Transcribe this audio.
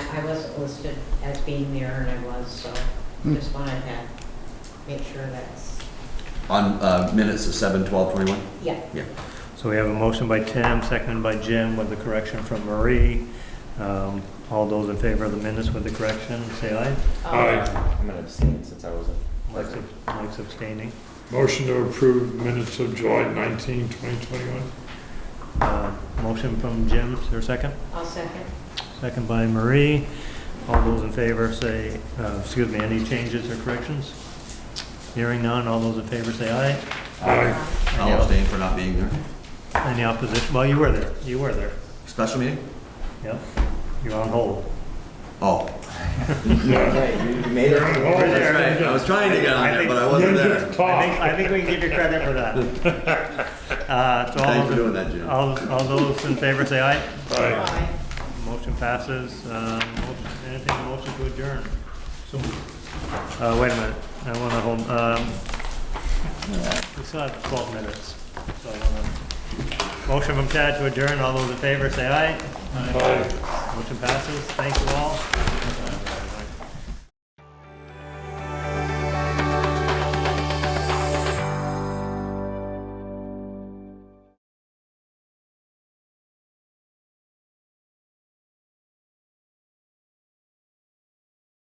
I wasn't listed as being there and I was, so just wanted to make sure that's, On uh, minutes of seven, twelve, twenty-one? yeah. Yeah. So we have a motion by Tim, seconded by Jim with the correction from Marie. Um, All those in favor of the minutes with the correction, say aye. Um, I'm gonna abstain since I wasn't. Mike's ab- Mike's abstaining. Motion to approve minutes of July 19, 2021. Uh, Motion from Jim, is there a second? I'll second. Second by Marie. All those in favor say, uh, excuse me, any changes or corrections? Hearing none, all those in favor say aye. Aye. I'll abstain for not being there. Any opposition? Well, you were there, you were there. Special meeting? Yep, you're on hold. Oh, Yeah. you made You're on hold. that's right. I was trying to get on there, but I wasn't there. I Talk. think, I think we can give you credit for that. Uh, so Thanks all those for in- doing that, Jim. All, all those in favor say aye. Aye. Aye. Motion passes. Um, motion- Entertain a motion to adjourn. Uh, wait a minute, I want to hold, um, we still have 12 minutes, so I want to, motion from Chad to adjourn. All those in favor say aye. Aye. Motion passes. Thank you all.